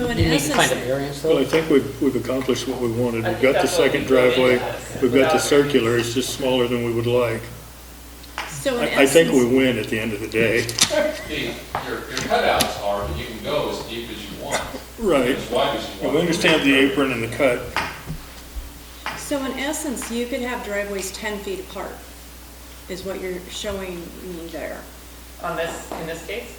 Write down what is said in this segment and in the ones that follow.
this need to find a is- variance Well, I though? think we've, we've accomplished what we wanted. I We've think got the that's what second we really driveway, want. we've got the Without- circular, it's just smaller than we would like. So in I, I think we essence- win at the end of the day. The, your, your cutouts are, that you can go as deep as you want, Right. as wide as you Well, want. We understand the apron and the cut. So in essence, you could have driveways ten feet apart, is what you're showing me there. On this, in this case?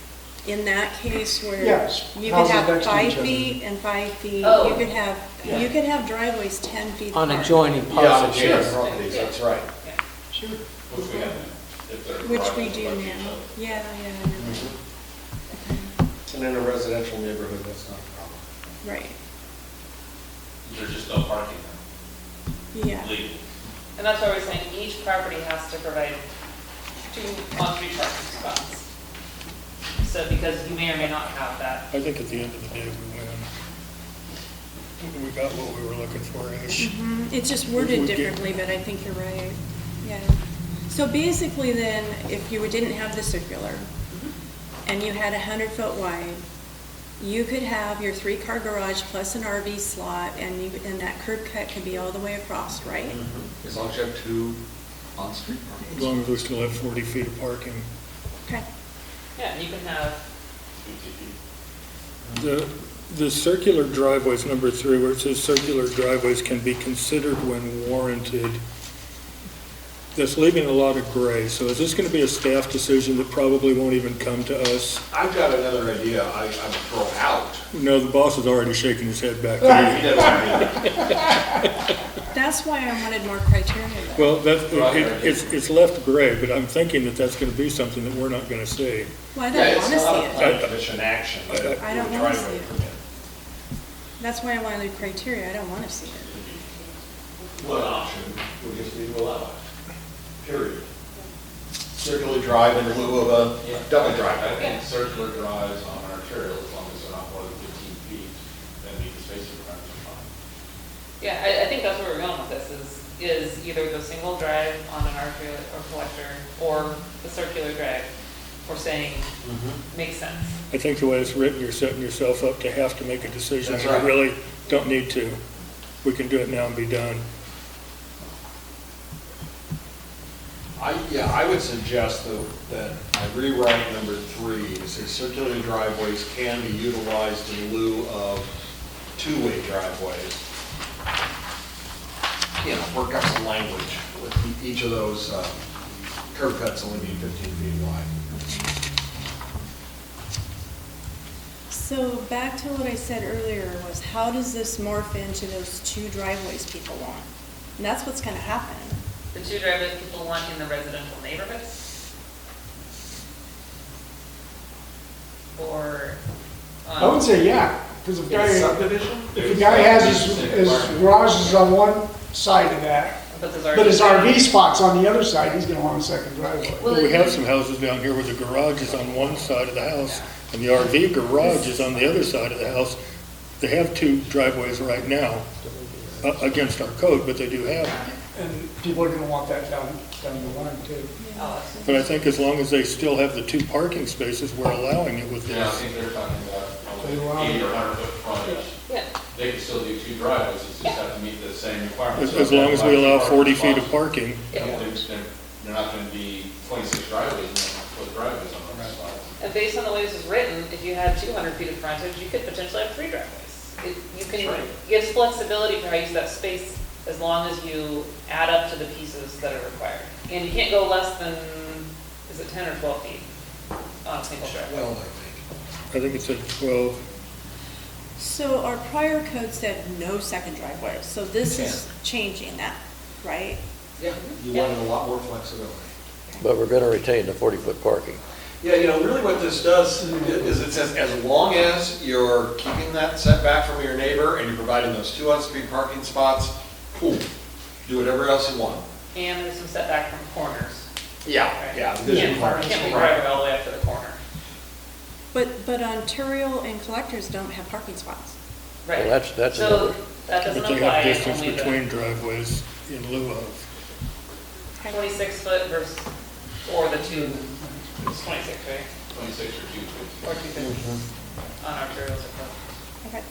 In that case where Yes, you could houses have next to five each other. feet and five feet, you Oh. could have, you could have driveways ten feet apart. On adjoining parcels, sure. yes. properties, that's right. Yeah. Which we have now, if they're Which we right do next to each now, other. yeah, yeah, I know. And in a residential neighborhood, that's not a problem. right, There's just no parking now, yeah. legally. And that's why we're saying each property has to provide two on-street parking spots. So because you may or may not have that. I think at the end of the day, we win. We got what we were looking for, ish. Mhm. It's just If worded we get- differently, but I think you're right, yeah. So basically then, if you didn't have the circular, Mm-hmm. and you had a hundred foot wide, you could have your three car garage plus an RV slot, and you, and that curb cut could be all the way across, right? Mm-hmm. As long as you have two on-street parking. As long as we still have 40 feet of parking. Okay, Yeah, and you can have, The, the circular driveways, number three, where it says circular driveways can be considered when warranted, that's leaving a lot of gray. So is this going to be a staff decision that probably won't even come to us? I've got another idea I, I would throw out. No, the boss is already shaking his head back there. that's why I wanted more criteria though. Well, that, it- it's, it's left gray, but I'm thinking that that's going to be something that we're not going to see. Well, I Yeah, don't it's wanna not a see it, plan commission action. but it I don't would wanna drive see a it. permit. that's why I wanted the criteria, I don't wanna see it. One option would just be to allow it, period. Circular drive in lieu of a double I drive. think circular drives on arterial, as long as they're not more than fifteen feet, then the spacing requirements are fine. yeah, I, I think that's where we're going with this is, is either the single drive on an arterial or collector or the circular drive. We're saying makes sense. I think the way it's written, you're setting yourself up to have to make a decision. That's You right. really don't need to. We can do it now and be done. I, yeah, I would suggest that, that I rewrite number three to say circular driveways can be utilized in lieu of two-way driveways. You know, work out some language with e- each of those uh, curb cuts only being 15 feet wide. So back to what I said earlier was, how does this morph into those two driveways people want? And that's what's gonna happen. The two driveways people want in the residential neighborhoods? Or um, on? I would say, yeah, because if in guy, subdivision? if a guy has his, his garage is on one side of that, But there's but his RV. RV spot's on the other side, he's gonna want a second driveway. Well, We have it- some houses down here where the garage is on one side of the house, and the RV garage is on the other side of the house. They have two driveways right now, uh, against our code, but they do have. them. And people are gonna want that down, down the line too. Oh, But I think as long as they still have the two parking spaces, we're allowing it with Yeah, I this. think they're talking about probably They allow- eighty or hundred foot frontage. Yeah, They can still do two driveways, it's just have to meet the same requirements. As as long as we allow 40 feet of apart. parking. They're, they're not gonna be twenty-six driveways and twelve driveways on one spot. and based on the way this is written, if you had 200 feet of frontage, you could potentially have three driveways. It- You That's can, right. gives flexibility for how you use that space as long as you add up to the pieces that are required. And you can't go less than, is it 10 or 12 feet on a single driveway? Well, I think. I think it said 12. So our prior code said no second driveway, so this is changing that, right? Yeah, you wanted a lot more flexibility. But we're going to retain the 40-foot parking. Yeah, you know, really what this does is it says, as long as you're keeping that setback from your neighbor and you're providing those two on-street parking spots, cool, do whatever else you want. And there's some setback from corners. Yeah, right? yeah. You the vision can't- requirements, You can't be right. driving all the way up to the corner. But, but Ontario and collectors don't have parking spots. Right. Well, that's- that's So another- that doesn't But they have apply, distance only the between driveways in lieu of. 26 foot versus, or the two, it's 26, right? Twenty-six or two, two. Or two fifty on arterials or Okay.